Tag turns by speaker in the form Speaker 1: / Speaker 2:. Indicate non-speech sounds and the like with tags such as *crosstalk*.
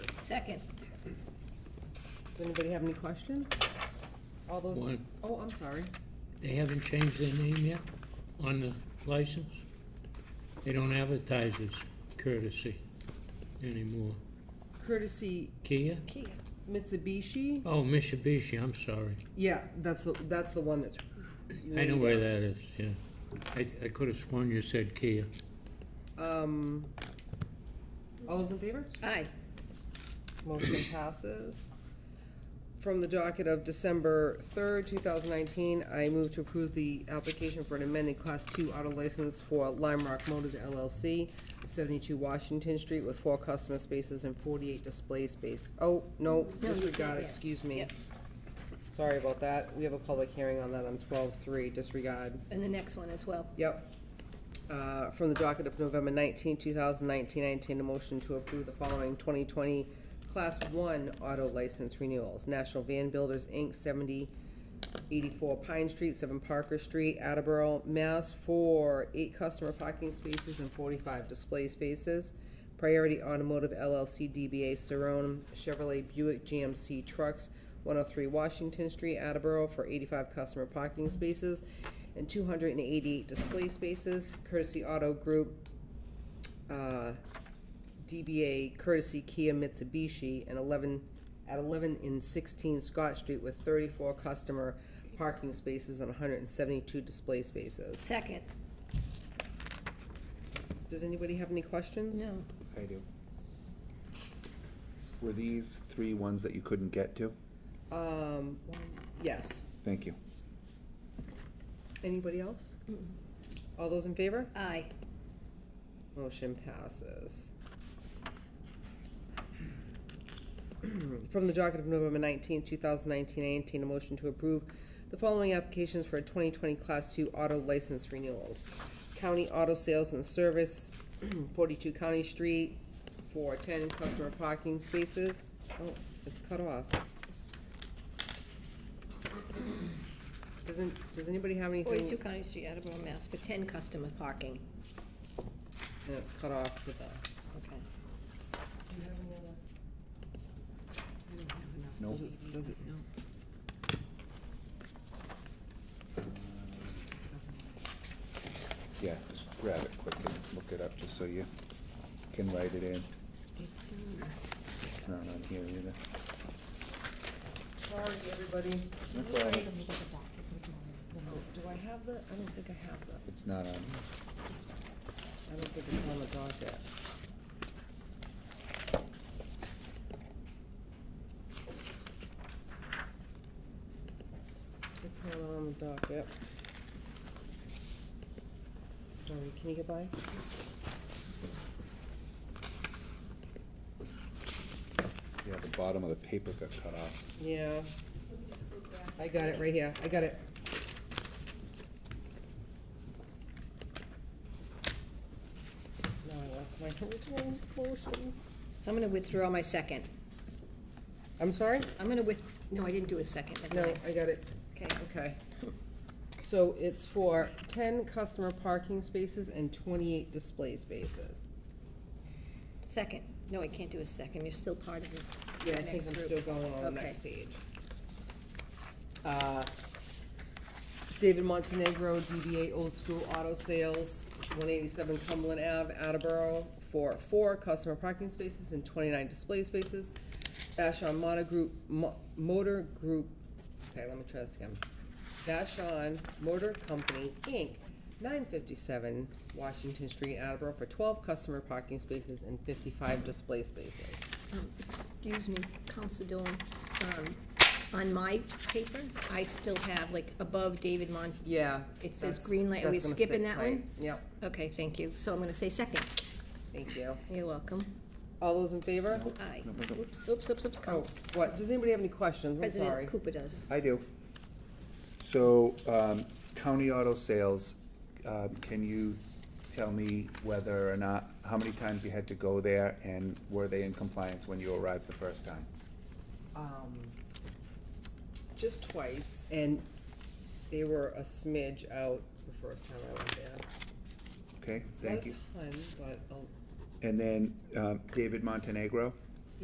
Speaker 1: Second.
Speaker 2: Does anybody have any questions? All those?
Speaker 3: One.
Speaker 2: Oh, I'm sorry.
Speaker 3: They haven't changed their name yet on the license? They don't advertise as courtesy anymore.
Speaker 2: Courtesy
Speaker 3: Kia?
Speaker 1: Kia.
Speaker 2: Mitsubishi?
Speaker 3: Oh, Mitsubishi, I'm sorry.
Speaker 2: Yeah, that's the, that's the one that's.
Speaker 3: I know where that is, yeah. I, I could have sworn you said Kia.
Speaker 2: Um, all those in favor?
Speaker 1: Aye.
Speaker 2: Motion passes. From the docket of December third, two thousand nineteen, I move to approve the application for an amended Class Two auto license for Lime Rock Motors LLC, seventy-two Washington Street with four customer spaces and forty-eight display space. Oh, no, disregard,
Speaker 1: yeah.
Speaker 2: excuse me.
Speaker 1: Yep.
Speaker 2: Sorry about that. We have a public hearing on that on twelve-three, disregard.
Speaker 1: And the next one as well.
Speaker 2: Yep. Uh, From the docket of November 19, 2019, I entertain a motion to approve the following 2020 Class 1 auto license renewals. National Van Builders, Inc., 7084 Pine Street, 7 Parker Street, Attleboro, Mass. For eight customer parking spaces and 45 display spaces. Priority Automotive LLC DBA Saron Chevrolet Buick GMC Trucks, 103 Washington Street, Attleboro, for 85 customer parking spaces and 288 display spaces. Courtesy Auto Group, uh, DBA Courtesy Kia Mitsubishi, and 11, at 11 and 16 Scott Street with 34 customer parking spaces and 172 display spaces.
Speaker 1: Second.
Speaker 2: Does anybody have any questions?
Speaker 1: No.
Speaker 4: I do. Were these three ones that you couldn't get to?
Speaker 2: Um, yes.
Speaker 4: Thank you.
Speaker 2: Anybody else? All those in favor?
Speaker 1: Aye.
Speaker 2: Motion passes. From the docket of November nineteenth, two thousand nineteen, I entertain a motion to approve the following applications for twenty twenty Class Two auto license renewals. County Auto Sales and Service, *clears throat* forty-two County Street, for ten customer parking spaces. Oh, it's cut off. Doesn't, does anybody have anything?
Speaker 1: Forty-two County Street, Attleboro, Mass. For ten customer parking.
Speaker 2: And it's cut off with a,
Speaker 1: Okay.
Speaker 4: No.
Speaker 2: does it, does it?
Speaker 4: Yeah, just grab it quick and look it up just so you can write it in.
Speaker 1: It's, um,
Speaker 4: It's not on here either.
Speaker 2: Sorry, everybody.
Speaker 4: No problem.
Speaker 2: Do I have the, I don't think I have the,
Speaker 4: It's not on.
Speaker 2: I don't think it's on the docket. It's not on the docket. Sorry, can you get by?
Speaker 4: Yeah, the bottom of the paper got cut off.
Speaker 2: Yeah. I got it right here, I got it. Now I lost my original motions.
Speaker 1: So I'm gonna withdraw my second.
Speaker 2: I'm sorry?
Speaker 1: I'm gonna with, no, I didn't do a second. never
Speaker 2: No,
Speaker 1: mind.
Speaker 2: I got it,
Speaker 1: Okay.
Speaker 2: okay. So it's for ten customer parking spaces and twenty-eight display spaces.
Speaker 1: Second. No, I can't do a second. You're still part of the
Speaker 2: Yeah, I
Speaker 1: the
Speaker 2: think
Speaker 1: next
Speaker 2: I'm
Speaker 1: group.
Speaker 2: still going on the
Speaker 1: Okay.
Speaker 2: next page. Uh, David Montenegro, DBA Old School Auto Sales, one eighty-seven Cumberland Ave, Attleboro, for four customer parking spaces and twenty-nine display spaces. Vashon Motor Group, Mo- Motor Group, okay, let me try this again. Vashon Motor Company, Inc., nine fifty-seven Washington Street, Attleboro, for twelve customer parking spaces and fifty-five display spaces.
Speaker 1: Um, Excuse me, Council Dolan, um, on my paper, I still have like above David Mon,
Speaker 2: Yeah.
Speaker 1: It says
Speaker 2: that's-
Speaker 1: green light. Are we
Speaker 2: that's gonna
Speaker 1: skipping
Speaker 2: sit
Speaker 1: that
Speaker 2: tight.
Speaker 1: one?
Speaker 2: Yep,
Speaker 1: okay, thank you, so I'm gonna say second.
Speaker 2: thank you.
Speaker 1: You're welcome.
Speaker 2: All those in favor?
Speaker 1: Aye.
Speaker 4: No, no, no.
Speaker 1: Oops, oops, oops, oops,
Speaker 2: Oh,
Speaker 1: Council.
Speaker 2: what, does anybody have any questions? I'm sorry.
Speaker 1: President Cooper does.
Speaker 4: I do. So, um, county auto sales, um, can you tell me whether or not, how many times you had to go there and were they in compliance when you arrived the first time?
Speaker 2: Um, Just twice, and they were a smidge out the first time I went there.
Speaker 4: Okay, thank you.
Speaker 2: Not a ton, but, oh,
Speaker 4: And then um, David Montenegro,